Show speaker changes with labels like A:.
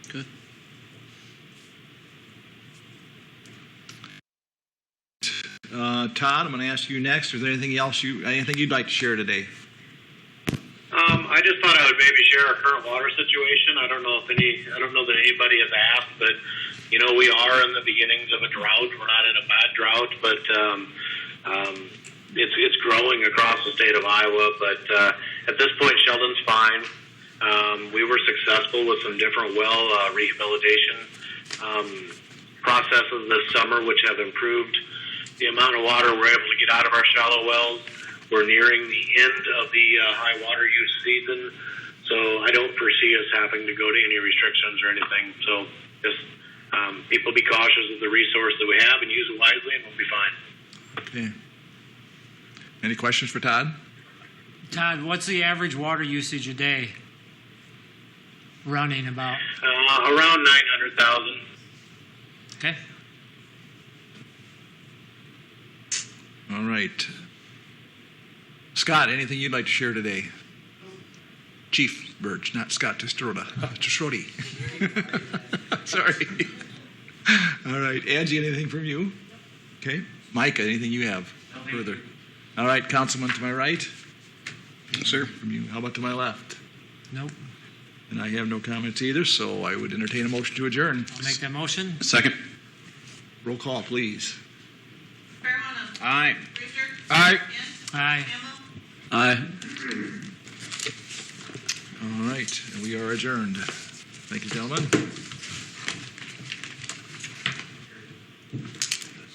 A: Good.
B: Uh, Todd, I'm going to ask you next. Is there anything else you, anything you'd like to share today?
C: Um, I just thought I would maybe share our current water situation. I don't know if any, I don't know that anybody has asked, but you know we are in the beginnings of a drought. We're not in a bad drought, but um, um, it's it's growing across the state of Iowa. But uh, at this point, Sheldon's fine. Um, we were successful with some different well uh, rehabilitation um, processes this summer, which have improved the amount of water we're able to get out of our shallow wells. We're nearing the end of the uh, high water use season, so I don't foresee us having to go to any restrictions or anything. So just um, people be cautious of the resource that we have and use it wisely, and we'll be fine.
B: Okay. Any questions for Todd?
A: Todd, what's the average water usage a day? Running about.
C: Uh, around 900,000.
A: Okay.
B: All right. Scott, anything you'd like to share today? Chief Birch, not Scott Testroda. Testrodi. Sorry. All right. Angie, anything from you? Okay. Micah, anything you have further? All right, Councilman to my right. Sir. From you. How about to my left?
A: Nope.
B: And I have no comments either, so I would entertain a motion to adjourn.
A: I'll make that motion.
D: Second.
B: Roll call, please.
E: Carolina.
D: Aye.
E: Brewster.
D: Aye.
E: Kent.
A: Aye.
E: Hamel.
D: Aye.
B: All right, and we are adjourned. Thank you, gentlemen.